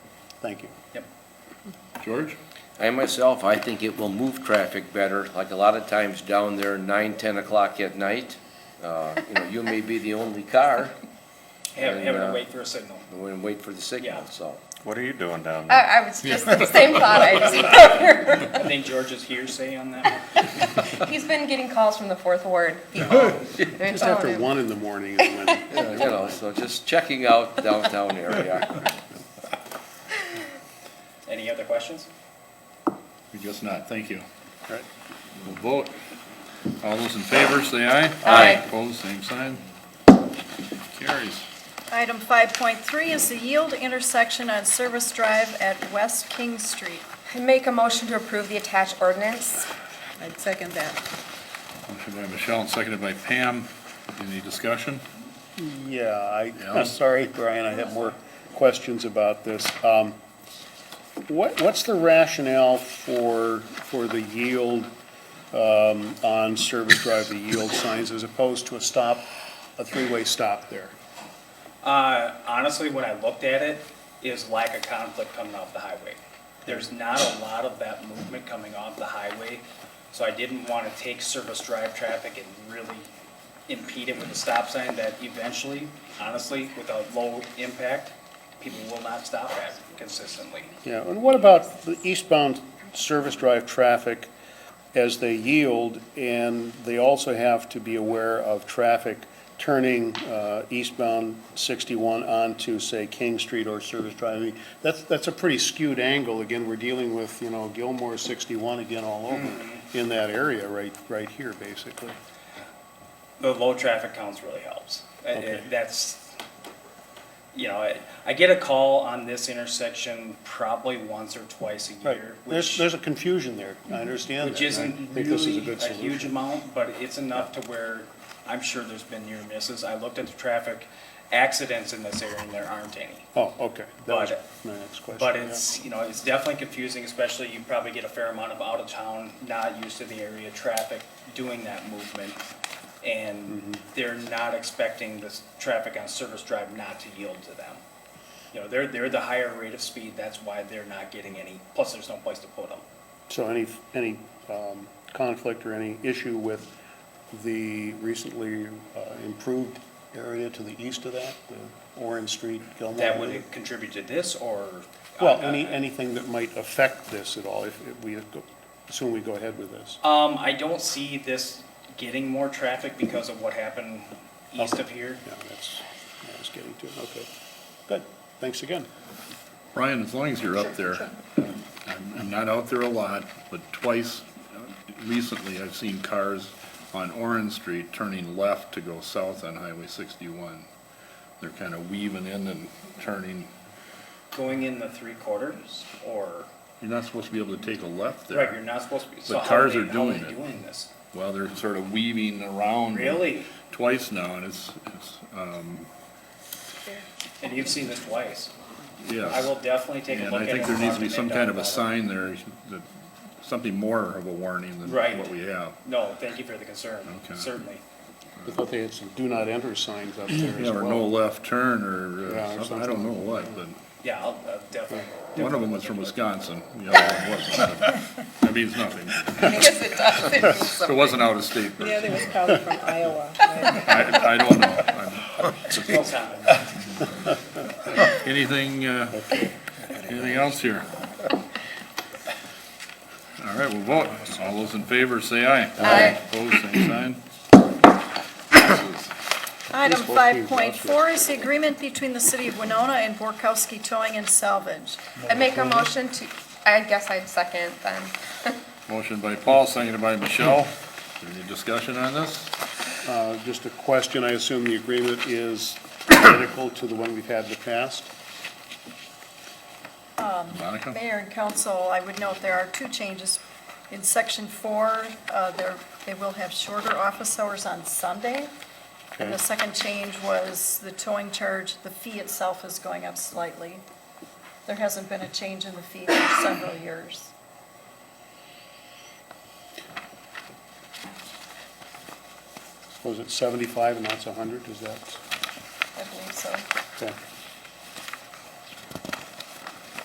Thank you. George? I myself, I think it will move traffic better, like a lot of times down there, nine, ten o'clock at night. Uh, You know, you may be the only car, Having, And, having uh, to wait for a signal. and we wait for the signal, Yeah. so. What are you doing down there? I, I was just, same thought I just had here. I think George's hearsay on that. one. He's been getting calls from the fourth ward. Just Oh. after one in the morning is when You know, so just checking out downtown area. Any other questions? I guess not, thank you. All right, we'll vote. All those in favor, say aye. Aye. Opposed, same sign. Carries. Item 5.3 is the yield intersection on Service Drive at West King Street. I make a motion to approve the attached ordinance. I'd second that. Motion by Michelle and seconded by Pam. Any discussion? Yeah, I, Yeah. I'm sorry, Brian, I have more questions about this. Um, What, what's the rationale for, for the yield um, on Service Drive, the yield signs, as opposed to a stop, a three-way stop there? Uh, honestly, when I looked at it, is lack of conflict coming off the highway. There's not a lot of that movement coming off the highway, so I didn't want to take service drive traffic and really impede it with a stop sign that eventually, honestly, with a low impact, people will not stop at consistently. Yeah, and what about the eastbound Service Drive traffic as they yield, and they also have to be aware of traffic turning uh, eastbound 61 onto, say, King Street or Service Drive? I mean, that's, that's a pretty skewed angle. Again, we're dealing with, you know, Gilmore 61 again all over Hmm. in that area right, right here, basically. the low traffic counts really helps. Uh, uh, Okay. That's, you know, I, I get a call on this intersection probably once or twice a year, There's, which, there's a confusion there. I understand that. which and I isn't think this is a really good a huge solution. amount, but it's enough to where I'm sure there's been near misses. I looked at the traffic accidents in this area and there aren't any. Oh, okay. That was But- my next question. But yeah. it's, you know, it's definitely confusing, especially you probably get a fair amount of out-of-town, not used to the area traffic doing that movement. And they're not expecting this traffic on Service Drive not to yield to them. You know, they're, they're the higher rate of speed, that's why they're not getting any, plus there's no place to put them. So any, any um, conflict or any issue with the recently uh, improved area to the east of that, the Orange Street, Gilmore? That Avenue? would contribute to this, or? Well, any, anything that might affect this at all, if if we go- assume we go ahead with this. Um, I don't see this getting more traffic because of what happened east of here. Yeah, that's, I was getting to, okay. Good, thanks again. Brian, as long as you're up there, I'm, I'm not out there a lot, but twice uh, recently, I've seen cars on Orange Street turning left to go south on Highway sixty-one. They're kind of weaving in and turning. Going in the three quarters, or? You're not supposed to be able to take a left there. Right, you're not supposed to be. so But how cars they- are how doing they it. Mm-hmm. Doing this. Well, they're sort of weaving around. Really? Twice now, and it's, it's, um, And you've seen this twice. yes. I will definitely take a And look at I it. think there and needs talk to be Nate some Dunn kind of a about it. sign there, that, something more of a warning than Right. what we have. No, thank you for the concern, Okay. certainly. I thought they had some do not enter signs up there as Yeah, well. or no left turn, or Yeah, uh, or something, I don't know what, but Yeah, I'll uh, definitely. one of them was from Wisconsin, the other one wasn't. but That means nothing. Yes, it does. It means If it something. wasn't out of state, The other was probably from Iowa. I, I don't know. I'm- No comment. Anything, uh, anything else here? All right, we'll vote. All those in favor, say aye. Aye. Opposed, same sign. Passes. Item Please vote please, 5.4 is the agreement between the City of Winona and Borkowski Towing and Salvage. I make a motion to, I guess I'd second then. Motion by Paul, seconded by Michelle. Any discussion on this? Uh, Just a question, I assume the agreement is identical to the one we've had in the past? Monica? Mayor and council, I would note there are two changes. In section four, uh, there, they will have shorter office hours on Sunday. And the Okay. second change was the towing charge, the fee itself is going up slightly. There hasn't been a change in the fee for several years. Was it 75 and that's 100, is that? I believe so. okay.